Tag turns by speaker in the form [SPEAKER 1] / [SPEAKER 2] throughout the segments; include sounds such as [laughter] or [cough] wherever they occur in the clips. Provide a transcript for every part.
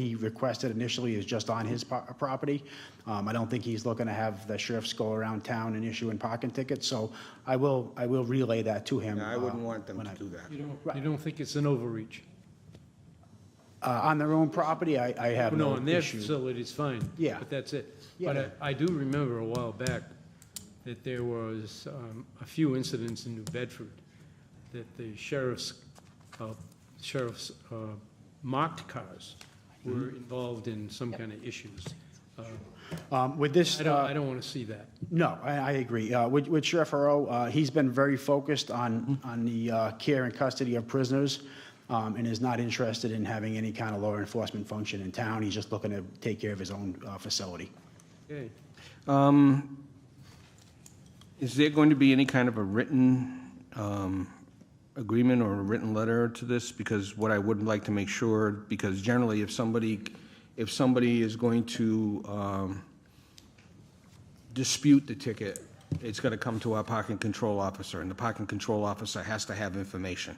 [SPEAKER 1] he requested initially is just on his po- property. Um, I don't think he's looking to have the sheriffs go around town and issue in parking tickets, so I will, I will relay that to him.
[SPEAKER 2] Yeah, I wouldn't
[SPEAKER 1] uh,
[SPEAKER 2] want them
[SPEAKER 1] when
[SPEAKER 2] to
[SPEAKER 1] I-
[SPEAKER 2] do that.
[SPEAKER 3] You don't, you don't think it's an overreach?
[SPEAKER 1] Uh, On their own property, I, I have
[SPEAKER 3] No,
[SPEAKER 1] no
[SPEAKER 3] on their
[SPEAKER 1] issue.
[SPEAKER 3] facility, it's fine.
[SPEAKER 1] Yeah.
[SPEAKER 3] But that's it.
[SPEAKER 1] Yeah,
[SPEAKER 3] But
[SPEAKER 1] yeah.
[SPEAKER 3] I, I do remember a while back that there was um, a few incidents in New Bedford that the sheriff's, uh, sheriff's uh, marked cars
[SPEAKER 1] Mm-hmm.
[SPEAKER 3] were involved in some kind of issues. Uh,
[SPEAKER 1] Um, With this.
[SPEAKER 3] I don't,
[SPEAKER 1] uh,
[SPEAKER 3] I don't want to see that.
[SPEAKER 1] No, I, I agree. Uh, With with Sheriff Hurrow, uh, he's been very focused on,
[SPEAKER 3] Mm-hmm.
[SPEAKER 1] on the uh, care and custody of prisoners um, and is not interested in having any kind of law enforcement function in town. He's just looking to take care of his own uh, facility.
[SPEAKER 3] Okay.
[SPEAKER 4] Um, Is there going to be any kind of a written um, agreement or a written letter to this? Because what I would like to make sure, because generally if somebody, if somebody is going to um, dispute the ticket, it's going to come to our parking control officer, and the parking control officer has to have information.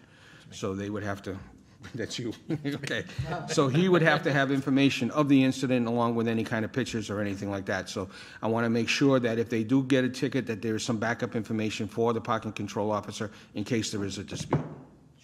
[SPEAKER 4] So they would have to, [laughs] that's you, okay. So he would have to have information of the incident along with any kind of pictures or anything like that. So I want to make sure that if they do get a ticket, that there is some backup information for the parking control officer in case there is a dispute.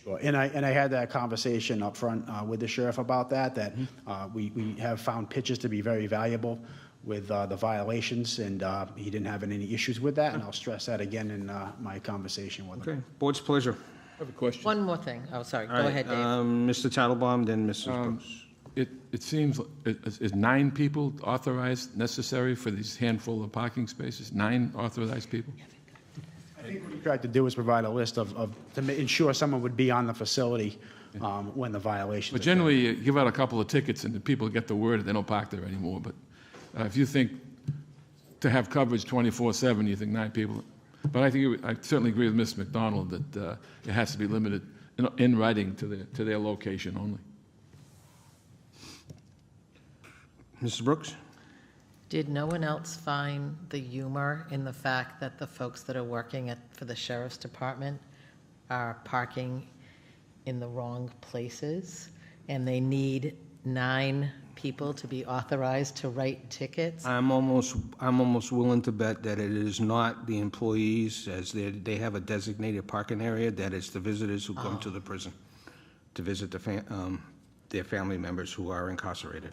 [SPEAKER 1] Sure. And I, and I had that conversation up front uh, with the sheriff about that, that uh, we, we have found pitches to be very valuable with uh, the violations, and uh, he didn't have any issues with that, and I'll stress that again in uh, my conversation with him.
[SPEAKER 4] Okay, board's pleasure.
[SPEAKER 5] I have a question.
[SPEAKER 6] One more thing. Oh, sorry. Go
[SPEAKER 4] All right,
[SPEAKER 6] ahead, Dave.
[SPEAKER 4] um, Mr. Tattlebaum, then Mrs. Brooks.
[SPEAKER 5] uh, It, it seems, li- is is nine people authorized necessary for these handful of parking spaces? Nine authorized people?
[SPEAKER 1] I think what he tried to do was provide a list of, of, to ma- ensure someone would be on the facility um, when the violations.
[SPEAKER 5] But
[SPEAKER 1] occur.
[SPEAKER 5] generally, you give out a couple of tickets and the people get the word, they don't park there anymore. But uh, if you think to have coverage 24/7, you think nine people. But I think, you- I certainly agree with Ms. McDonald that uh, it has to be limited in- in writing to their, to their location only.
[SPEAKER 4] Mrs. Brooks?
[SPEAKER 6] Did no one else find the humor in the fact that the folks that are working at, for the sheriff's department are parking in the wrong places? And they need nine people to be authorized to write tickets?
[SPEAKER 4] I'm almost, I'm almost willing to bet that it is not the employees, as they, they have a designated parking area, that it's the visitors who come to the prison to visit the, fa- um, their family members who are incarcerated.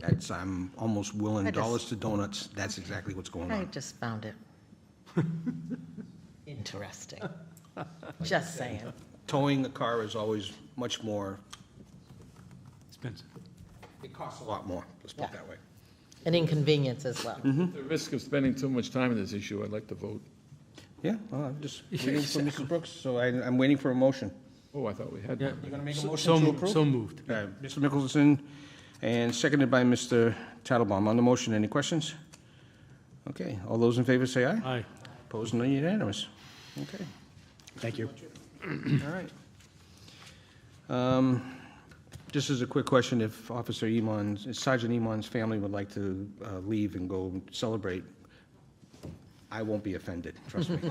[SPEAKER 4] That's, I'm almost willing,
[SPEAKER 6] I just-
[SPEAKER 4] dollars to donuts, that's exactly what's going
[SPEAKER 6] I
[SPEAKER 4] on.
[SPEAKER 6] just found it interesting. Just saying.
[SPEAKER 4] Towing a car is always much more,
[SPEAKER 3] Expensive.
[SPEAKER 4] it costs a lot more, let's put it that way.
[SPEAKER 6] An inconvenience as well.
[SPEAKER 5] At the risk of spending too much time on this issue, I'd like to vote.
[SPEAKER 4] Yeah, well, I'm just waiting for Mrs. Brooks, so I, I'm waiting for a motion.
[SPEAKER 5] Oh, I thought we had
[SPEAKER 4] You
[SPEAKER 5] one.
[SPEAKER 4] gonna make a
[SPEAKER 3] So,
[SPEAKER 4] motion to
[SPEAKER 3] so-
[SPEAKER 4] approve?
[SPEAKER 3] so moved.
[SPEAKER 4] All right, Uh, Mr. Mickelson, and seconded by Mr. Tattlebaum. On the motion, any questions? Okay, all those in favor say aye.
[SPEAKER 3] Aye.
[SPEAKER 4] Opposed, none unanimous. Okay,
[SPEAKER 1] Thank you.
[SPEAKER 4] all right. Um, Just as a quick question, if Officer Iman's, if Sergeant Iman's family would like to uh, leave and go celebrate, I won't be offended, trust me.
[SPEAKER 3] [laughs]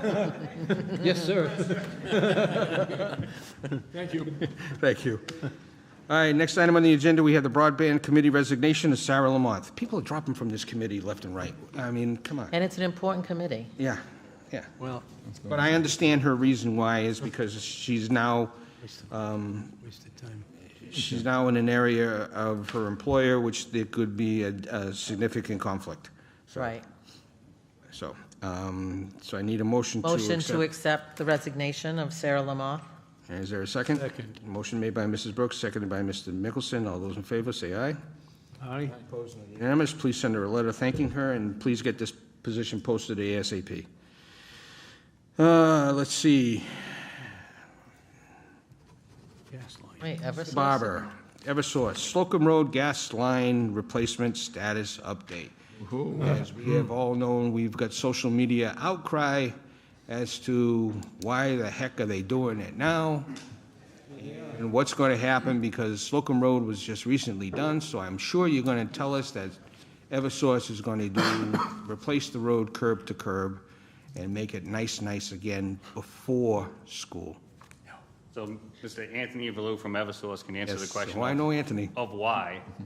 [SPEAKER 3] Yes, sir.
[SPEAKER 4] [laughs] Thank you. All right, next item on the agenda, we have the Broadband Committee resignation of Sarah Lamont. People are dropping from this committee left and right. I mean, come on.
[SPEAKER 6] And it's an important committee.
[SPEAKER 4] Yeah, yeah.
[SPEAKER 3] Well,
[SPEAKER 4] But I understand her reason why is because she's now, um,
[SPEAKER 3] wasted time.
[SPEAKER 4] she's now in an area of her employer which there could be a, a significant conflict.
[SPEAKER 6] Right.
[SPEAKER 4] So, um, so I need a motion to
[SPEAKER 6] Motion to
[SPEAKER 4] accept.
[SPEAKER 6] accept the resignation of Sarah Lamar.
[SPEAKER 4] Is there a second?
[SPEAKER 3] Second.
[SPEAKER 4] Motion made by Mrs. Brooks, seconded by Mr. Mickelson. All those in favor, say aye.
[SPEAKER 3] Aye.
[SPEAKER 4] Unanimous, please send her a letter thanking her, and please get this position posted ASAP. Uh, let's see,
[SPEAKER 3] Gaslight.
[SPEAKER 6] Wait, Eversource?
[SPEAKER 4] Barber, Eversource, Slocum Road Gas Line Replacement Status Update. As we have all known, we've got social media outcry as to why the heck are they doing it now? And what's going to happen, because Slocum Road was just recently done, so I'm sure you're going to tell us that Eversource is going to do, replace the road curb to curb and make it nice, nice again before school.
[SPEAKER 2] So Mr. Anthony Avalou from Eversource can answer the
[SPEAKER 4] Yes,
[SPEAKER 2] question
[SPEAKER 4] Well, I
[SPEAKER 2] of-
[SPEAKER 4] know Anthony.
[SPEAKER 2] of why.